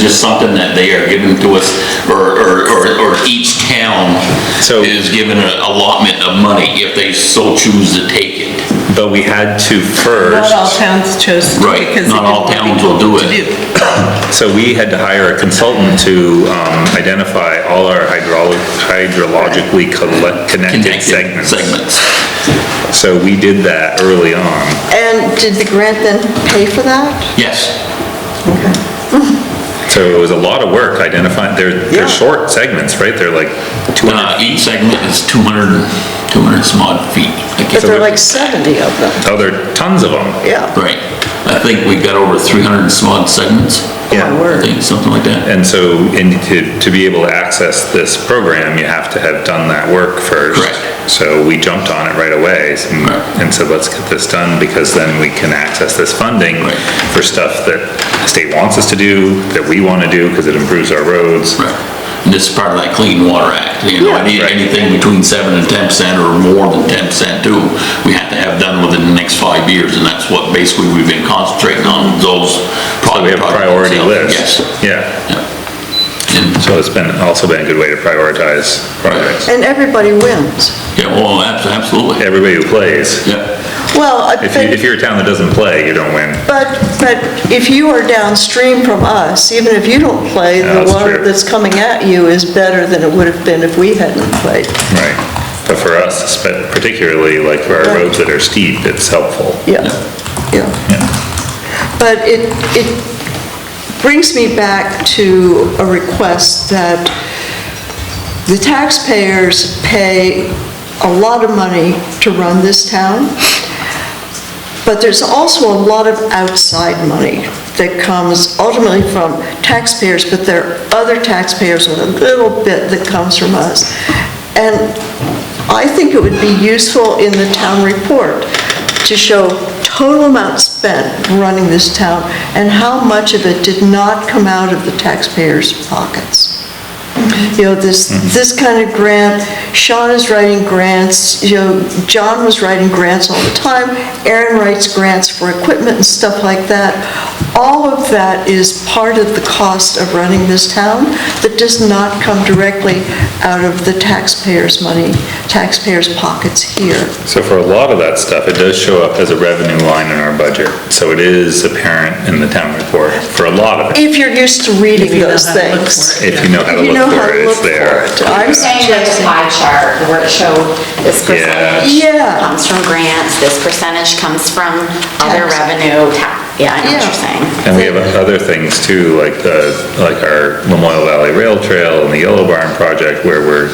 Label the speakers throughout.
Speaker 1: just something that they are giving to us, or, or, or- or each town
Speaker 2: So-
Speaker 1: is given an allotment of money if they so choose to take it.
Speaker 2: But we had to
Speaker 3: Not all
Speaker 2: first,
Speaker 3: towns chose to.
Speaker 1: Right,
Speaker 3: because it
Speaker 1: not all
Speaker 3: didn't want
Speaker 1: towns will do
Speaker 3: people
Speaker 1: it.
Speaker 3: to
Speaker 2: so we had to hire a consultant to um, identify all our hydrolo- hydrologically colle- connected
Speaker 1: Connected
Speaker 2: segments.
Speaker 1: segments.
Speaker 2: So we did that early on.
Speaker 4: And did the grant then pay for that?
Speaker 1: Yes.
Speaker 2: So it was a lot of work identifying, they're,
Speaker 4: Yeah.
Speaker 2: they're short segments, right? They're like
Speaker 1: Uh,
Speaker 2: 200,
Speaker 1: each segment is 200, 200 some odd feet. I
Speaker 4: But
Speaker 1: guess.
Speaker 4: there are like 70 of them,
Speaker 2: oh, there are tons of them.
Speaker 4: yeah.
Speaker 1: Right. I think we got over 300 and some odd segments.
Speaker 2: Yeah.
Speaker 4: My
Speaker 1: I
Speaker 4: word.
Speaker 1: think, something like that.
Speaker 2: And so, and to, to be able to access this program, you have to have done that work first.
Speaker 1: Correct.
Speaker 2: So we jumped on it right away and-
Speaker 1: Right.
Speaker 2: and said, let's get this done because then we can access this funding
Speaker 1: Right.
Speaker 2: for stuff that the state wants us to do, that we want to do because it improves our roads.
Speaker 1: Right. And this is part of that Clean Water Act, you know,
Speaker 4: Yeah.
Speaker 1: any-
Speaker 2: Right.
Speaker 1: anything between seven and ten percent or more than ten percent too, we have to have done within the next five years, and that's what basically we've been concentrating on, those.
Speaker 2: So we have a priority list.
Speaker 1: Yes.
Speaker 2: Yeah,
Speaker 1: And,
Speaker 2: so it's been, also been a good way to prioritize projects.
Speaker 4: And everybody wins.
Speaker 1: Yeah, well, abs- absolutely.
Speaker 2: Everybody who plays,
Speaker 1: Yeah.
Speaker 4: Well, I
Speaker 2: if you, if
Speaker 4: think,
Speaker 2: you're a town that doesn't play, you don't win.
Speaker 4: but, but if you are downstream from us, even if you don't play,
Speaker 2: Yeah,
Speaker 4: the
Speaker 2: that's
Speaker 4: water
Speaker 2: true.
Speaker 4: that's coming at you is better than it would have been if we hadn't played.
Speaker 2: Right. But for us, spe- particularly like for our
Speaker 4: Right.
Speaker 2: roads that are steep, it's helpful.
Speaker 4: Yeah, yeah. But it, it brings me back to a request that the taxpayers pay a lot of money to run this town, but there's also a lot of outside money that comes ultimately from taxpayers, but there are other taxpayers with a little bit that comes from us. And I think it would be useful in the town report to show total amount spent running this town and how much of it did not come out of the taxpayers' pockets. You know, this, this kind of grant, Sean is writing grants, you know, John was writing grants all the time, Aaron writes grants for equipment and stuff like that. All of that is part of the cost of running this town that does not come directly out of the taxpayers' money, taxpayers' pockets here.
Speaker 2: So for a lot of that stuff, it does show up as a revenue line in our budget. So it is apparent in the town report for a lot of it.
Speaker 4: If you're used to reading
Speaker 3: do.
Speaker 4: those things.
Speaker 2: If you know how to
Speaker 4: If you know
Speaker 2: look
Speaker 4: how
Speaker 2: for it,
Speaker 4: to
Speaker 2: it's
Speaker 4: look for
Speaker 2: there.
Speaker 4: it. I'm
Speaker 5: You're saying like the
Speaker 4: suggesting,
Speaker 5: pie chart where it showed this
Speaker 2: Yeah.
Speaker 5: percentage
Speaker 4: Yeah.
Speaker 5: comes from grants, this percentage comes from other
Speaker 4: Tax.
Speaker 5: revenue, ta- yeah, I know what
Speaker 4: Yeah.
Speaker 5: you're saying.
Speaker 2: And we have other things too, like the, like our Lamoille Valley Rail Trail and the Yellow Barn project where we're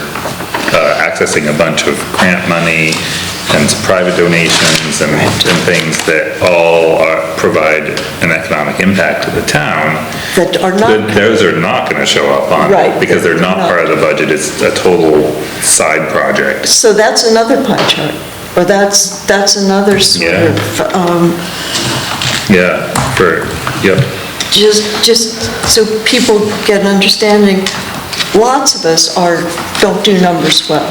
Speaker 2: uh, accessing a bunch of grant money and some private donations and, and things that all are, provide an economic impact to the town.
Speaker 4: that are not
Speaker 2: Th- Those are not gonna show up on. it,
Speaker 4: Right.
Speaker 2: Because they're not part of the budget, it's a total side project.
Speaker 4: So that's another pie chart, or that's, that's another sort
Speaker 2: Yeah.
Speaker 4: of, um,
Speaker 2: Yeah, for, yep,
Speaker 4: just, just so people get an understanding, lots of us are, don't do numbers well.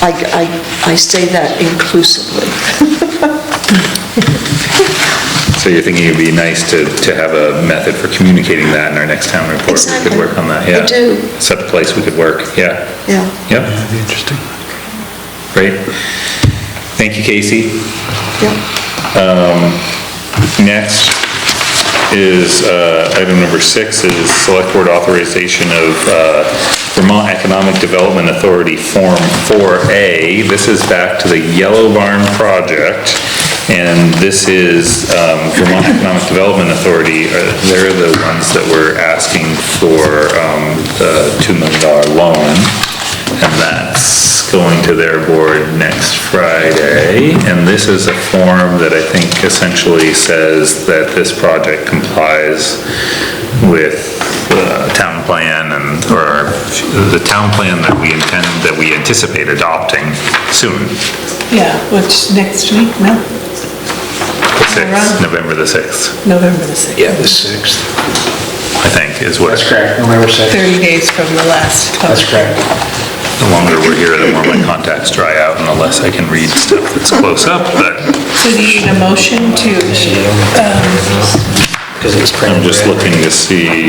Speaker 4: I, I, I say that inclusively.
Speaker 2: so you're thinking it'd be nice to, to have a method for communicating that in our next town report? We
Speaker 4: Exactly.
Speaker 2: could work on that, yeah.
Speaker 4: I do.
Speaker 2: Set a place we could work, yeah.
Speaker 4: Yeah,
Speaker 2: Yep. That'd be interesting. Great. Thank you, Casey.
Speaker 4: yeah.
Speaker 2: Next is, uh, item number six is select board authorization of uh, Vermont Economic Development Authority Form 4A. This is back to the Yellow Barn project, and this is um, Vermont Economic Development Authority. uh, They're the ones that were asking for um, the $2 million loan. And that's going to their board next Friday. And this is a form that I think essentially says that this project complies with the town plan and, or the town plan that we intend, that we anticipate adopting soon,
Speaker 3: Yeah, which, next week, no,
Speaker 2: the 6th, November the 6th,
Speaker 3: November the 6th.
Speaker 6: Yeah, the 6th.
Speaker 2: I think is what,
Speaker 6: That's correct, November 6th.
Speaker 3: 30 days from the last.
Speaker 6: That's correct.
Speaker 2: the longer we're here, the more my contacts dry out and the less I can read stuff that's close up, but
Speaker 3: uh, So do you need a motion to um,
Speaker 6: because it's
Speaker 2: I'm
Speaker 6: printed.
Speaker 2: just
Speaker 6: red.
Speaker 2: looking to see